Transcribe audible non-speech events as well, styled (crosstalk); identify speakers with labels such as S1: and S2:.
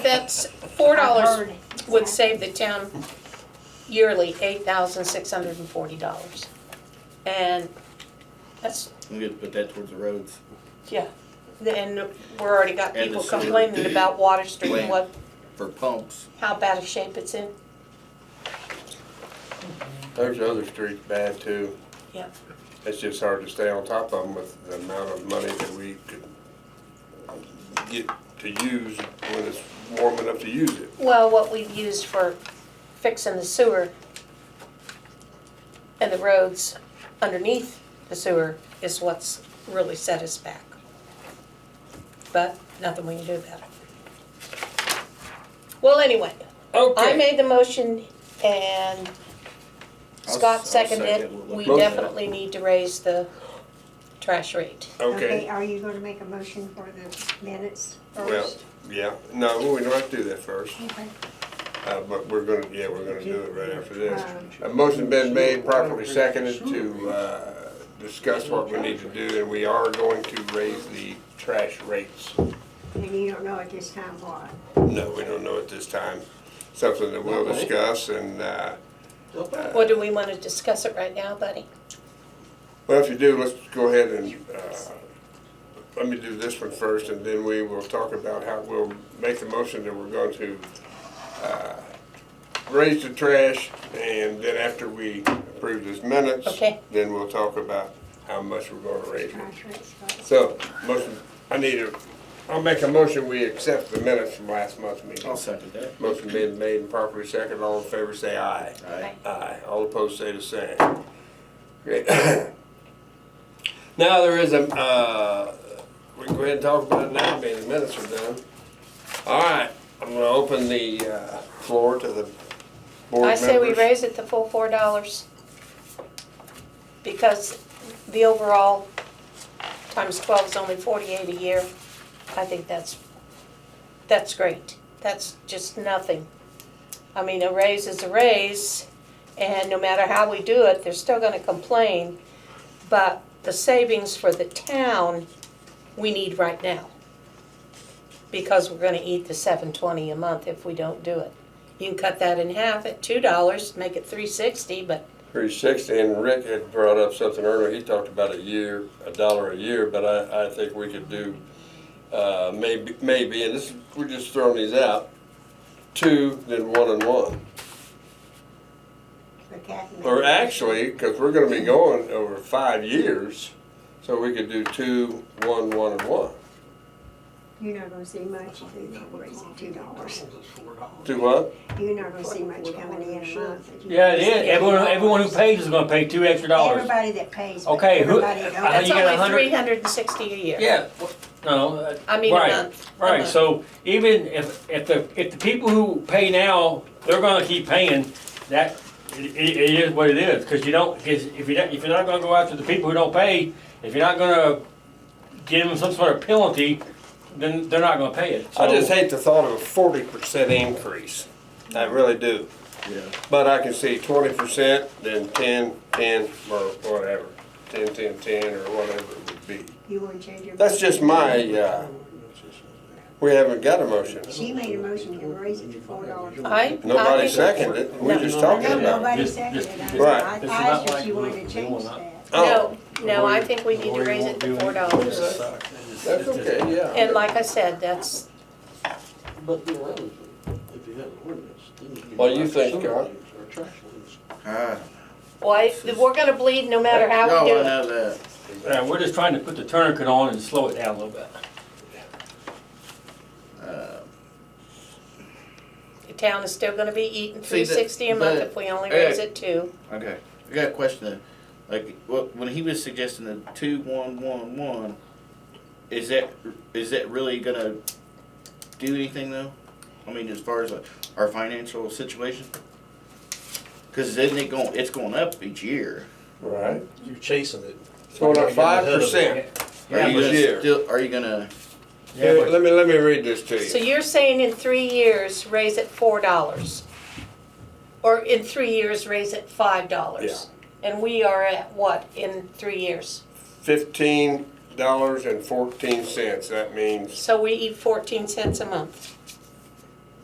S1: that's, four dollars would save the town yearly eight thousand six hundred and forty dollars. And that's,
S2: We get to put that towards the roads.
S1: yeah, and we're already got
S2: And the
S1: people
S2: sewer.
S1: complaining about Water Street and what,
S2: Plant. For pumps,
S1: how bad a shape it's in.
S3: There's other streets bad too.
S1: Yeah.
S3: It's just hard to stay on top of them with the amount of money that we could get to use when it's warm enough to use it.
S1: Well, what we've used for fixing the sewer and the roads underneath the sewer is what's really set us back. But nothing we can do about it. Well, anyway, I made the motion and
S2: I'll-
S1: Scott
S2: I'll
S1: seconded
S2: second
S1: it.
S2: what
S1: We
S3: Motion.
S1: definitely need to raise the trash rate.
S3: Okay,
S4: Are you gonna make a motion for the minutes
S3: well,
S4: first?
S3: yeah, no, we don't have to do that first,
S4: Okay.
S3: uh, but we're gonna, yeah, we're gonna do it right after this.
S4: Um,
S3: A motion been made properly seconded to, uh, discuss what we need to do, and we are going to raise the trash rates.
S4: And you don't know at this time what?
S3: No, we don't know at this time, something that we'll discuss and, uh,
S1: Well, do we want to discuss it right now, buddy?
S3: Well, if you do, let's go ahead and, uh, let me do this one first, and then we will talk about how we'll make the motion that we're going to uh, raise the trash, and then after we approve this minutes,
S1: Okay.
S3: then we'll talk about how much we're gonna raise it.
S4: Trash rates, but-
S3: So, motion, I need a, I'll make a motion, we accept the minutes from last month's meeting.
S2: I'll second that.
S3: Motion being made and properly seconded, all in favor say aye.
S2: Aye.
S3: Aye, all opposed say the same. Great. (coughs) Now, there is a, uh, we can go ahead and talk about it now, being the minutes are done. All right, I'm gonna open the uh, floor to the board
S1: I
S3: members.
S1: say we raise it the full four dollars. Because the overall times twelve is only forty-eight a year. I think that's, that's great. That's just nothing. I mean, a raise is a raise, and no matter how we do it, they're still gonna complain. But the savings for the town, we need right now. Because we're gonna eat the seven twenty a month if we don't do it. You can cut that in half at two dollars, make it three sixty, but
S3: Three sixty, and Rick had brought up something earlier, he talked about a year, a dollar a year, but I, I think we could do, uh, maybe, maybe, and this, we're just throwing these out, two, then one and one.
S4: but that-
S3: Or actually, because we're gonna be going over five years, so we could do two, one, one, and one.
S4: You're not gonna see much if you raise it two dollars.
S3: Do what?
S4: You're not gonna see much coming in a month. if you
S5: Yeah, it
S4: raise
S5: is. Everyone,
S4: $2.
S5: everyone who pays is gonna pay two extra dollars.
S4: Everybody that pays. but
S5: Okay, who-
S4: everybody don't.
S5: I think
S1: that's
S5: Uh, you got
S1: only
S5: 100
S1: three hundred and sixty a year.
S5: Yeah. No, uh,
S1: I mean, a
S5: Right.
S1: month. a
S5: right,
S1: month.
S5: so even if, if the, if the people who pay now, they're gonna keep paying, that, it, it it is what it is, cause you don't, cause if you don't, if you're not gonna go after the people who don't pay, if you're not gonna give them some sort of penalty, then they're not gonna pay it, so.
S3: I just hate the thought of a forty percent increase. I really do.
S2: Yeah.
S3: But I can see twenty percent, then ten, ten, or whatever. Ten, ten, ten, or whatever it would be.
S4: You wouldn't change your.
S3: That's just my, uh, we haven't got a motion.
S4: She made a motion to raise it to four dollars.
S1: I,
S3: Nobody
S1: I think,
S3: seconded it. We're
S1: No.
S3: just talking about it.
S4: Nobody
S5: Just-
S4: seconded
S5: just-
S4: it.
S3: Right.
S4: I I
S5: It's not
S4: asked her if
S5: like
S4: she
S5: we-
S4: wanted to
S5: we will
S4: change
S5: not-
S4: that.
S3: Oh,
S1: no, no, I think we need to raise it to four dollars.
S3: that's okay, yeah.
S1: And like I said, that's,
S6: But the other thing, if you had an ordinance, then you.
S3: What do you think, Carl?
S2: Ah,
S1: why, we're gonna bleed no matter how we
S2: No,
S1: do
S2: I
S1: it.
S2: know that.
S5: Uh, we're just trying to put the tourniquet on and slow it down a little bit.
S2: Uh,
S1: The town is still gonna be eating
S2: See,
S1: three
S2: that-
S1: sixty a month
S2: but-
S1: if we only raise it two.
S2: Okay, I got a question though. Like, what, when he was suggesting the two, one, one, one, is that, is that really gonna do anything though? I mean, as far as like, our financial situation? Cause isn't it going, it's going up each year.
S3: Right.
S6: You're chasing it.
S3: It's going up five
S2: Are
S3: percent.
S2: you
S3: Yeah, but-
S2: gonna still, are you gonna,
S3: Yeah, let me, let me read this to
S1: So
S3: you.
S1: you're saying in three years, raise it four dollars? Or in three years, raise it five dollars? And we are at what in three years?
S3: Fifteen dollars and fourteen cents, that means,
S1: So we eat fourteen cents a month.